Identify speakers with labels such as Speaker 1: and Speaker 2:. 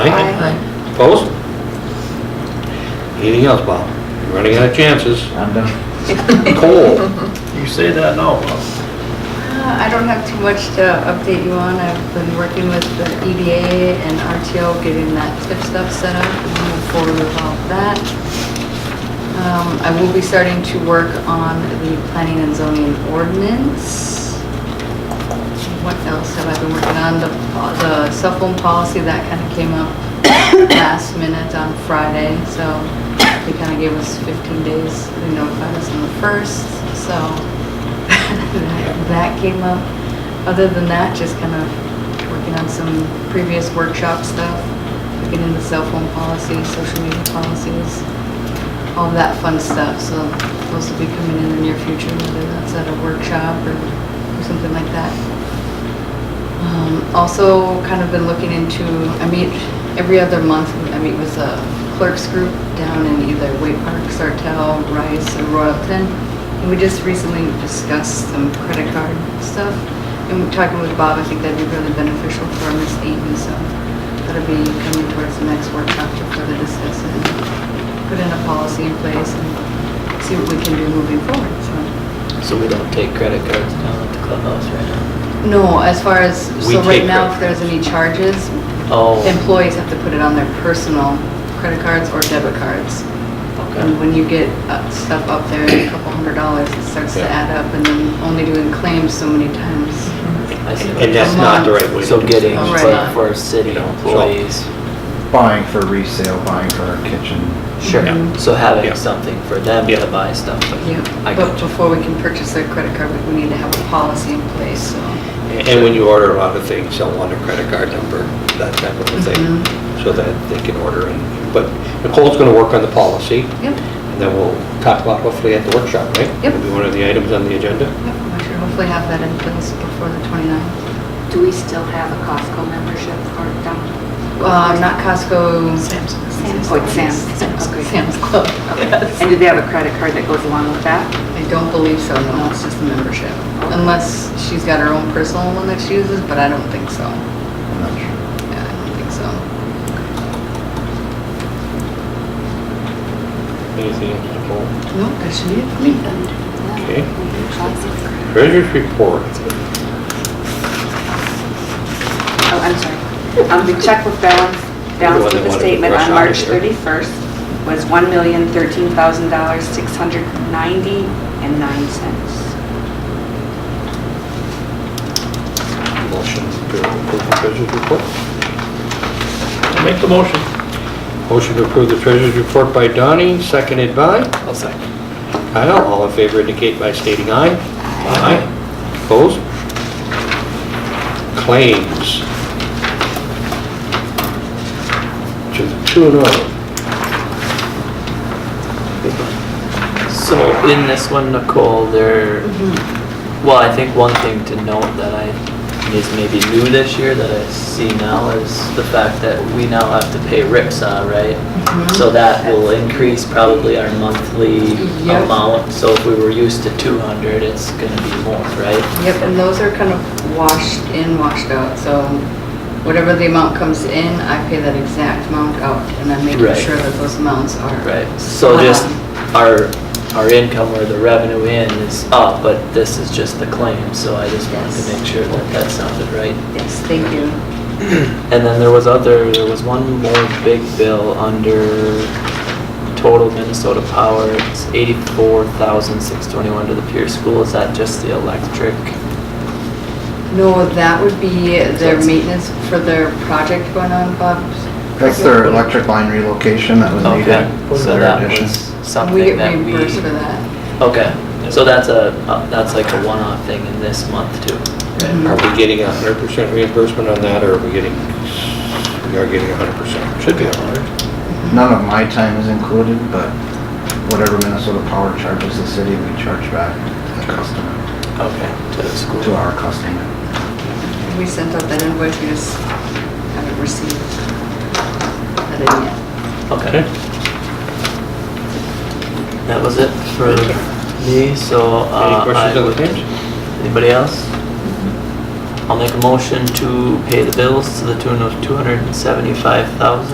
Speaker 1: Aye. Opposed? Anything else, Bob? You're Running out of chances.
Speaker 2: I'm done.
Speaker 1: Coal.
Speaker 3: You say that now, Bob.
Speaker 4: Uh, I don't have too much to update you on. I've been working with the EDA and RTO, getting that tip stuff set up, and move forward with all of that. Um, I will be starting to work on the planning and zoning ordinance. What else have I been working on? The, the cell phone policy, that kind of came up last minute on Friday, so they kind of gave us 15 days, they notified us on the first, so that- that came up. Other than that, just kind of working on some previous workshop stuff, looking into cell phone policy, social media policies, all that fun stuff, so those will be coming in the near future, whether that's at a workshop or or something like that. Um, Also, kind of been looking into, I meet, every other month, I meet with a clerks group down in either Wake Park, Sartell, Rice, or Royalton. And we just recently discussed some credit card stuff, and we're talking with Bob, I think that'd be really beneficial for Miss Eaton, so that'll be coming towards the next workshop to further discuss and put in a policy in place and see what we can do moving forward, so.
Speaker 5: So we don't take credit cards down at the clubhouse right now?
Speaker 4: No, as far as,
Speaker 1: We
Speaker 4: so right
Speaker 1: take
Speaker 4: now,
Speaker 1: credit
Speaker 4: if there's any charges,
Speaker 5: Oh.
Speaker 4: employees have to put it on their personal credit cards or debit cards. And when you get uh, stuff up there, a couple hundred dollars, it starts to
Speaker 1: Yeah.
Speaker 4: add up, and then only doing claims so many times.
Speaker 1: Mm-hmm.
Speaker 5: I see.
Speaker 1: And that's not the right way. to
Speaker 5: So
Speaker 1: do it.
Speaker 5: getting,
Speaker 4: Oh, right.
Speaker 5: like, for city employees,
Speaker 2: Buying for resale, buying for our kitchen.
Speaker 5: sure,
Speaker 4: Mhm.
Speaker 5: so
Speaker 1: Yeah.
Speaker 5: having something for them
Speaker 1: Yeah.
Speaker 5: to buy stuff, but I
Speaker 4: Yeah, but
Speaker 5: got you.
Speaker 4: before we can purchase their credit card, we- we need to have a policy in place, so.
Speaker 1: And when you order a lot of things, they'll want a credit card number, that type of a thing,
Speaker 4: Mhm.
Speaker 1: so that they can order. and- But Nicole's going to work on the policy,
Speaker 4: Yep,
Speaker 1: and then we'll talk about hopefully at the workshop, right?
Speaker 4: Yep.
Speaker 1: It'll be one of the items on the agenda.
Speaker 4: yep, I should hopefully have that in place before the 29th.
Speaker 6: Do we still have a Costco membership or don't?
Speaker 4: Uh, Not Costco. Sam's.
Speaker 6: Sam's. Oh, it's Sam's. Okay.
Speaker 4: Sam's Club, yes.
Speaker 6: And do they have a credit card that goes along with that?
Speaker 4: I don't believe so, no, it's just a membership. Unless she's got her own personal one that she uses, but I don't think so.
Speaker 2: I'm not sure.
Speaker 4: Yeah, I don't think so.
Speaker 1: Anything else, Nicole?
Speaker 4: No, that should be it for me.
Speaker 1: Okay. Treasurer's report.
Speaker 6: Oh, I'm sorry. Um, the checkbook balance,
Speaker 1: You're
Speaker 6: balance
Speaker 1: the one that
Speaker 6: with the
Speaker 1: wanted to
Speaker 6: statement
Speaker 1: rush
Speaker 6: on
Speaker 1: out
Speaker 6: March
Speaker 1: of here.
Speaker 6: 31st was one million thirteen thousand dollars six hundred ninety and nine cents.
Speaker 1: Motion to approve the treasurer's report.
Speaker 3: Make the motion.
Speaker 1: Motion to approve the treasurer's report by Donnie, seconded by?
Speaker 5: I'll second.
Speaker 1: Kyle, all in favor indicate by stating aye. Aye. Opposed? Claims. To the oh. tune of,
Speaker 5: So in this one, Nicole, there,
Speaker 4: Mm-hmm.
Speaker 5: well, I think one thing to note that I, is maybe new this year that I see now is the fact that we now have to pay RIPSA,
Speaker 4: Mm-hmm.
Speaker 5: right? So that will increase probably our monthly
Speaker 4: Yep.
Speaker 5: amount, so if we were used to two hundred, it's gonna be more, right?
Speaker 4: Yep, and those are kind of washed in, washed out, so whatever the amount comes in, I pay that exact amount out, and I'm making
Speaker 5: Right.
Speaker 4: sure that those amounts are.
Speaker 5: Right, so just
Speaker 4: Um,
Speaker 5: our, our income or the revenue in is up, but this is just the claim, so I just wanted to make sure that that sounded right.
Speaker 4: Yes, thank you.
Speaker 5: And then there was other, there was one more big bill under total Minnesota power, it's eighty-four thousand six twenty-one to the Pierce School, is that just the electric?
Speaker 4: No, that would be their
Speaker 5: That's-
Speaker 4: maintenance for their project going on, Bob.
Speaker 2: That's their electric line relocation that was
Speaker 5: Okay,
Speaker 2: needed.
Speaker 5: so that was
Speaker 4: We
Speaker 5: something
Speaker 4: get
Speaker 5: that we.
Speaker 4: reimbursed for that.
Speaker 5: Okay, so that's a, uh, that's like a one-off thing in this month too.
Speaker 4: Mhm.
Speaker 1: are we getting a hundred percent reimbursement on that, or are we getting, we are getting a hundred percent? Should be a hundred.
Speaker 2: None of my time is included, but whatever Minnesota Power charges the city, we charge back to the customer,
Speaker 5: Okay, to the school.
Speaker 2: to our customer.
Speaker 4: We sent out that invoice, we just haven't received that in yet.
Speaker 5: Okay. That was it for me, so. uh,
Speaker 1: Any questions
Speaker 5: I
Speaker 1: on the
Speaker 5: would-
Speaker 1: claims?
Speaker 5: Anybody else? I'll make a motion to pay the bills to the tune of two hundred and seventy-five thousand.